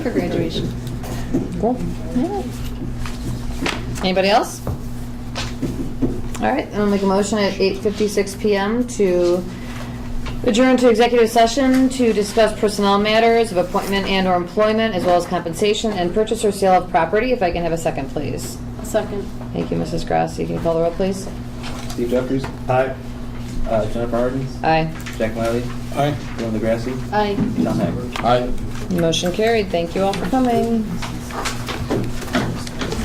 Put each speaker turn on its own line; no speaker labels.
for graduation.
Cool.
Anybody else? All right, I'll make a motion at 8:56 PM to adjourn to executive session to discuss personnel matters of appointment and/or employment, as well as compensation and purchase or sale of property. If I can have a second, please.
Second.
Thank you, Mrs. Grassi. Can you call the roll, please?
Steve Jeffries. Aye. Uh, Jennifer Hardens.
Aye.
Jack Miley. Aye. Dylan DeGrassi.
Aye.
John Hager.
All right.
Motion carried. Thank you all for coming.